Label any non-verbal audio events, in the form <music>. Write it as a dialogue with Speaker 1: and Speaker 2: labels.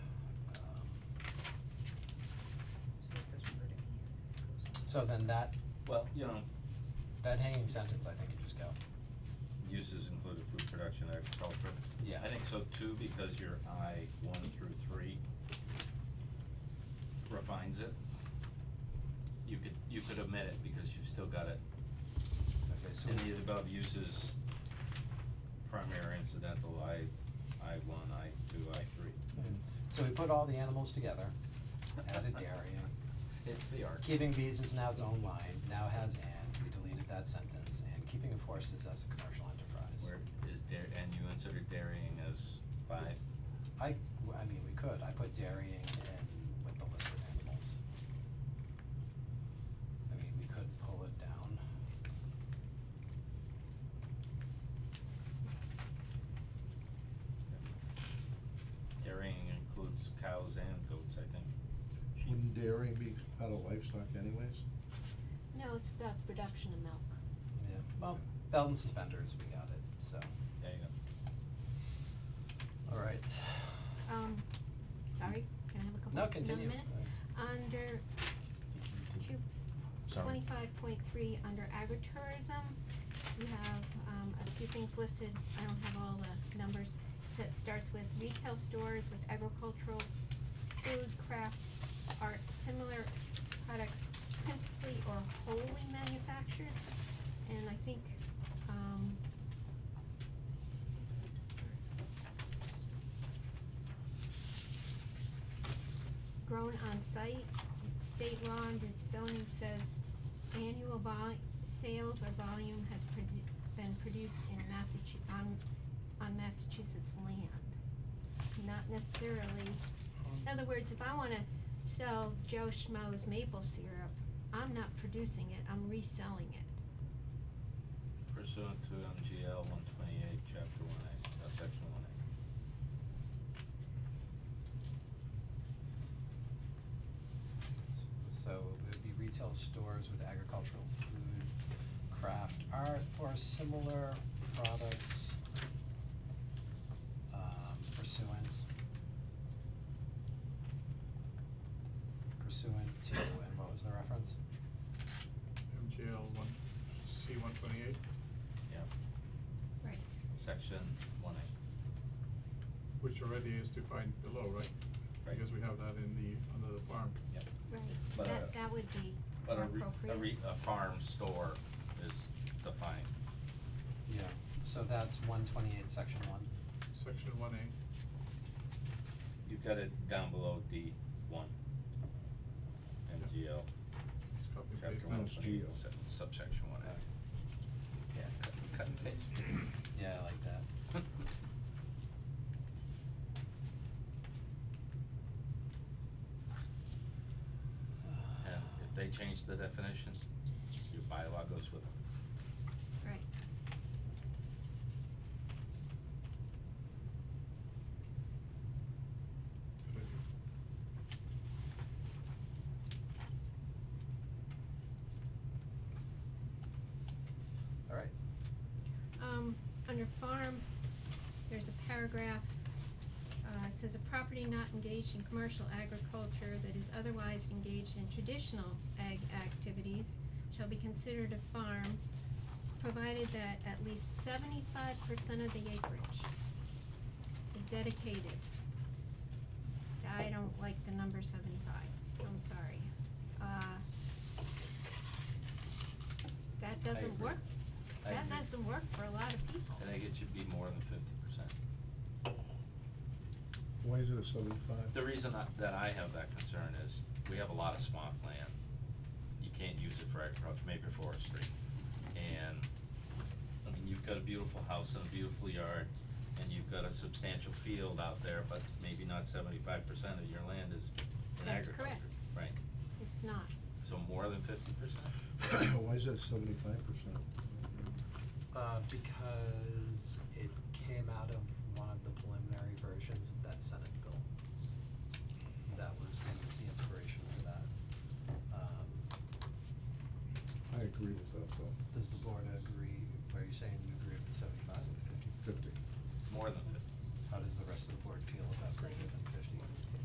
Speaker 1: Um, So then that,
Speaker 2: Well, you know,
Speaker 1: that hanging sentence, I think you just go,
Speaker 2: uses included food production, agriculture.
Speaker 1: yeah.
Speaker 2: I think so too, because your I one through three refines it. You could, you could omit it because you've still got it.
Speaker 1: Okay, so,
Speaker 2: Any of the above uses, primary incidental, I, I one, I two, I three.
Speaker 1: mm. so we put all the animals
Speaker 2: <laughs>
Speaker 1: together, added dairy, and
Speaker 2: It's the arc.
Speaker 1: keeping bees is now its own line, now has and, we deleted that sentence, and keeping of horses as a commercial enterprise.
Speaker 2: Where is dairy, and you inserted dairying as five.
Speaker 1: I, w- I mean, we could, I put dairying in with the list of animals. I mean, we could pull it down.
Speaker 2: Dairying includes cows and goats, I think.
Speaker 3: Wouldn't dairy be part of livestock anyways?
Speaker 4: No, it's about the production of milk.
Speaker 1: Yeah, well, belt and suspenders, we got it, so,
Speaker 2: There you go.
Speaker 1: alright.
Speaker 4: Um, sorry, can I have a couple,
Speaker 1: No,
Speaker 4: another
Speaker 1: continue.
Speaker 4: minute? Under two, twenty-five point three, under agritourism, we have, um, a few things listed, I don't have all the numbers. So it starts with retail stores with agricultural, food, craft, art, similar products principally or wholly manufactured. And I think, um, grown on site, state law under zoning says annual vol- sales or volume has produ- been produced in Massachusetts, on, on Massachusetts land. Not necessarily, in other words, if I wanna sell Joe Schmo's maple syrup, I'm not producing it, I'm reselling it.
Speaker 2: Pursuant to MGL one twenty-eight, chapter one A, uh, section one A.
Speaker 1: So it would be retail stores with agricultural food, craft, art, or similar products um, pursuant pursuant to, and what was the reference?
Speaker 5: MGL one, C one twenty-eight.
Speaker 2: Yeah,
Speaker 4: Right.
Speaker 2: section one A.
Speaker 5: Which already is defined below, right?
Speaker 2: Right.
Speaker 5: Because we have that in the, under the farm.
Speaker 2: Yep.
Speaker 4: Right,
Speaker 2: But
Speaker 4: that,
Speaker 2: a-
Speaker 4: that would be
Speaker 2: But
Speaker 4: more
Speaker 2: a re,
Speaker 4: appropriate.
Speaker 2: a re, a farm store is defined.
Speaker 1: Yeah, so that's one twenty-eight, section one.
Speaker 5: Section one A,
Speaker 2: You've got it down below D one. MGL,
Speaker 5: just copy and paste
Speaker 2: chapter
Speaker 5: that.
Speaker 2: one
Speaker 3: Sounds
Speaker 2: twenty-eight,
Speaker 3: geo.
Speaker 2: se- subsection one A. Yeah, cut, cut and paste.
Speaker 1: Yeah, I like that.
Speaker 2: <laughs>
Speaker 1: Uh,
Speaker 2: And if they change the definition, your bylaw goes with it.
Speaker 4: Right.
Speaker 5: Good idea.
Speaker 1: Alright,
Speaker 4: Um, under farm, there's a paragraph, uh, it says a property not engaged in commercial agriculture that is otherwise engaged in traditional ag activities shall be considered a farm, provided that at least seventy-five percent of the acreage is dedicated. I don't like the number seventy-five, I'm sorry. Uh, that doesn't
Speaker 2: agree.
Speaker 4: work
Speaker 2: I
Speaker 4: that
Speaker 2: agree.
Speaker 4: doesn't work for a lot of people.
Speaker 2: I think it should be more than fifty percent.
Speaker 3: Why is it a seventy-five?
Speaker 2: The reason that, that I have that concern is we have a lot of swamp land. You can't use it for agriculture, maybe forestry. And, I mean, you've got a beautiful house and a beautiful yard, and you've got a substantial field out there, but maybe not seventy-five percent of your land is in
Speaker 4: That's
Speaker 2: agriculture.
Speaker 4: correct.
Speaker 2: Right,
Speaker 4: It's not.
Speaker 2: so more than fifty percent?
Speaker 3: <coughs> Why is that seventy-five percent?
Speaker 1: Uh, because it came out of one of the preliminary versions of that Senate bill. That was the, the inspiration for that. Um,
Speaker 3: I agree with that though.
Speaker 1: does the board agree, are you saying